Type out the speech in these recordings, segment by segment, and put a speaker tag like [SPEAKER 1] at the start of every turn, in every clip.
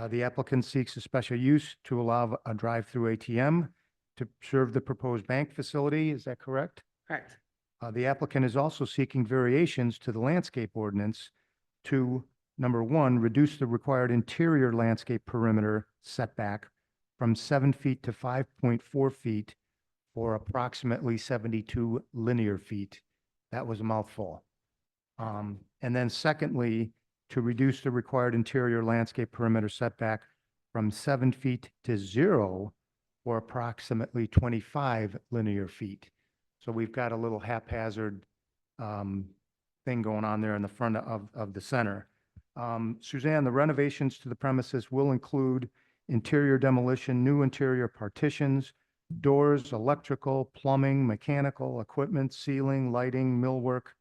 [SPEAKER 1] Uh, The applicant seeks a special use to allow a drive-through ATM to serve the proposed bank facility. Is that correct?
[SPEAKER 2] Correct.
[SPEAKER 1] Uh, The applicant is also seeking variations to the landscape ordinance to, number one, reduce the required interior landscape perimeter setback from seven feet to five point four feet or approximately seventy-two linear feet. That was a mouthful. Um, And then secondly, to reduce the required interior landscape perimeter setback from seven feet to zero or approximately twenty-five linear feet. So we've got a little haphazard um, thing going on there in the front of, of the center. Um, Suzanne, the renovations to the premises will include interior demolition, new interior partitions, doors, electrical, plumbing, mechanical, equipment, ceiling, lighting, millwork.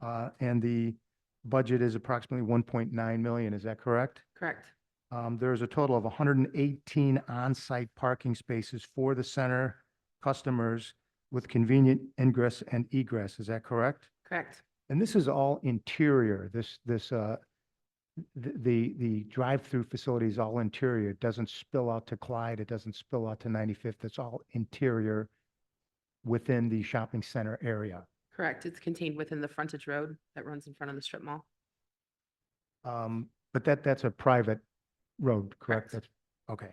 [SPEAKER 1] uh, And the budget is approximately 1.9 million, is that correct?
[SPEAKER 2] Correct.
[SPEAKER 1] Um, there's a total of 118 on-site parking spaces for the center customers with convenient ingress and egress. Is that correct?
[SPEAKER 2] Correct.
[SPEAKER 1] And this is all interior. This, this, uh, th- the, the drive-through facility is all interior. It doesn't spill out to Clyde. It doesn't spill out to 95th. It's all interior within the shopping center area.
[SPEAKER 2] Correct. It's contained within the frontage road that runs in front of the strip mall.
[SPEAKER 1] Um, but that, that's a private road, correct?
[SPEAKER 2] Correct.
[SPEAKER 1] That's, okay.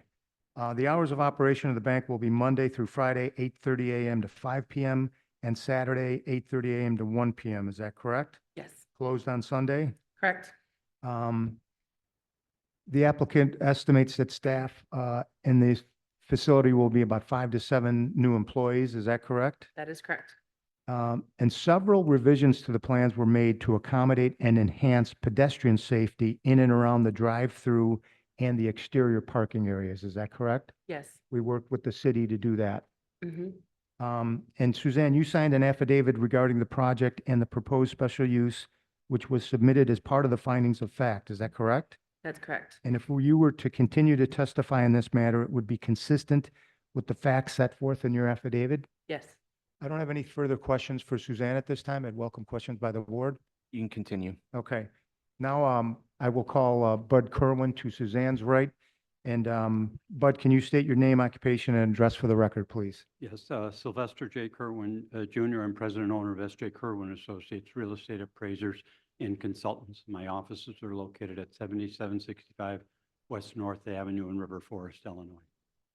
[SPEAKER 1] Uh, the hours of operation of the bank will be Monday through Friday, eight thirty AM to five PM, and Saturday, eight thirty AM to one PM. Is that correct?
[SPEAKER 2] Yes.
[SPEAKER 1] Closed on Sunday?
[SPEAKER 2] Correct.
[SPEAKER 1] Um, The applicant estimates that staff uh, in the facility will be about five to seven new employees. Is that correct?
[SPEAKER 2] That is correct.
[SPEAKER 1] Um, And several revisions to the plans were made to accommodate and enhance pedestrian safety in and around the drive-through and the exterior parking areas. Is that correct?
[SPEAKER 2] Yes.
[SPEAKER 1] We worked with the city to do that.
[SPEAKER 2] hmm
[SPEAKER 1] Um, and Suzanne, you signed an affidavit regarding the project and the proposed special use, which was submitted as part of the findings of fact. Is that correct?
[SPEAKER 2] That's correct.
[SPEAKER 1] And if you were to continue to testify in this matter, it would be consistent with the facts set forth in your affidavit.
[SPEAKER 2] Yes.
[SPEAKER 1] I don't have any further questions for Suzanne at this time. I'd welcome questions by the board.
[SPEAKER 3] You can continue.
[SPEAKER 1] Okay. Now, um, I will call uh, Bud Kerwin to Suzanne's right. And, um, Bud, can you state your name, occupation, and address for the record, please?
[SPEAKER 4] Yes, uh, Sylvester J. Kerwin uh, Jr. I'm president and owner of S.J. Kerwin Associates Real Estate Appraisers and Consultants. My offices are located at 7765 West North Avenue in River Forest, Illinois.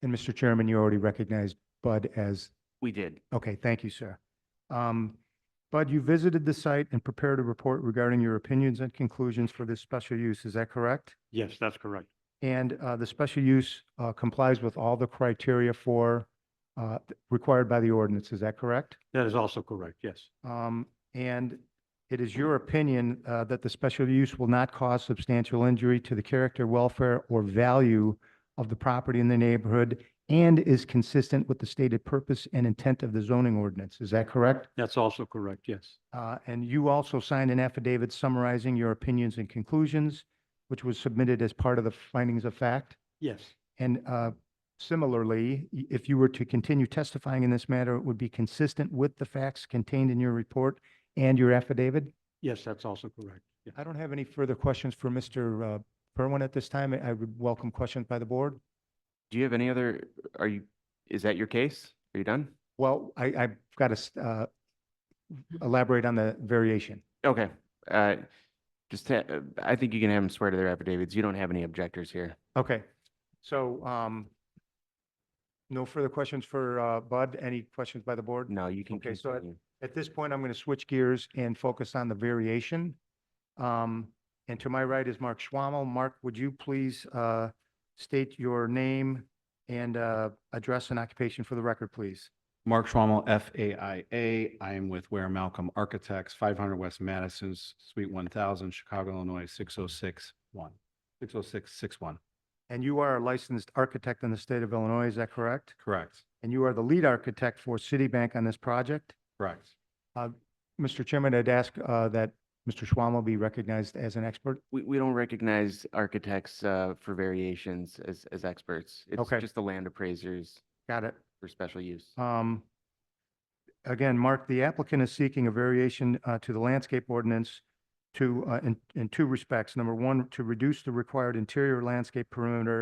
[SPEAKER 1] And Mr. Chairman, you already recognized Bud as
[SPEAKER 3] We did.
[SPEAKER 1] Okay, thank you, sir. Um, Bud, you visited the site and prepared a report regarding your opinions and conclusions for this special use, is that correct?
[SPEAKER 4] Yes, that's correct.
[SPEAKER 1] And uh, the special use uh, complies with all the criteria for, uh, required by the ordinance, is that correct?
[SPEAKER 4] That is also correct, yes.
[SPEAKER 1] Um, And it is your opinion uh, that the special use will not cause substantial injury to the character, welfare, or value of the property in the neighborhood and is consistent with the stated purpose and intent of the zoning ordinance, is that correct?
[SPEAKER 4] That's also correct, yes.
[SPEAKER 1] Uh, And you also signed an affidavit summarizing your opinions and conclusions, which was submitted as part of the findings of fact.
[SPEAKER 4] Yes,
[SPEAKER 1] And uh, similarly, y- if you were to continue testifying in this matter, it would be consistent with the facts contained in your report and your affidavit.
[SPEAKER 4] yes, that's also correct. Yeah.
[SPEAKER 1] I don't have any further questions for Mr. uh, Perwin at this time. I I would welcome questions by the board.
[SPEAKER 3] Do you have any other, are you, is that your case? Are you done?
[SPEAKER 1] Well, I, I've got to uh, elaborate on the variation.
[SPEAKER 3] Okay. Uh, Just, ha- uh, I think you can have them swear to their affidavits. You don't have any objectors here.
[SPEAKER 1] Okay, so, um, no further questions for, uh, Bud? Any questions by the board?
[SPEAKER 3] No, you can
[SPEAKER 1] Okay, so I-
[SPEAKER 3] continue.
[SPEAKER 1] At this point, I'm going to switch gears and focus on the variation. Um, and to my right is Mark Schwammel. Mark, would you please, uh, state your name and, uh, address and occupation for the record, please?
[SPEAKER 5] Mark Schwammel, FAIA. I am with Ware Malcolm Architects, 500 West Madison, Suite 1000, Chicago, Illinois, 6061, 60661.
[SPEAKER 1] And you are a licensed architect in the state of Illinois, is that correct?
[SPEAKER 5] Correct,
[SPEAKER 1] And you are the lead architect for Citibank on this project?
[SPEAKER 5] correct.
[SPEAKER 1] Mr. Chairman, I'd ask, uh, that Mr. Schwammel be recognized as an expert.
[SPEAKER 3] We, we don't recognize architects uh, for variations as, as experts. It's
[SPEAKER 1] Okay.
[SPEAKER 3] just the land appraisers
[SPEAKER 1] Got it.
[SPEAKER 3] for special use.
[SPEAKER 1] Um, Again, Mark, the applicant is seeking a variation uh, to the landscape ordinance to, uh, in, in two respects. Number one, to reduce the required interior landscape perimeter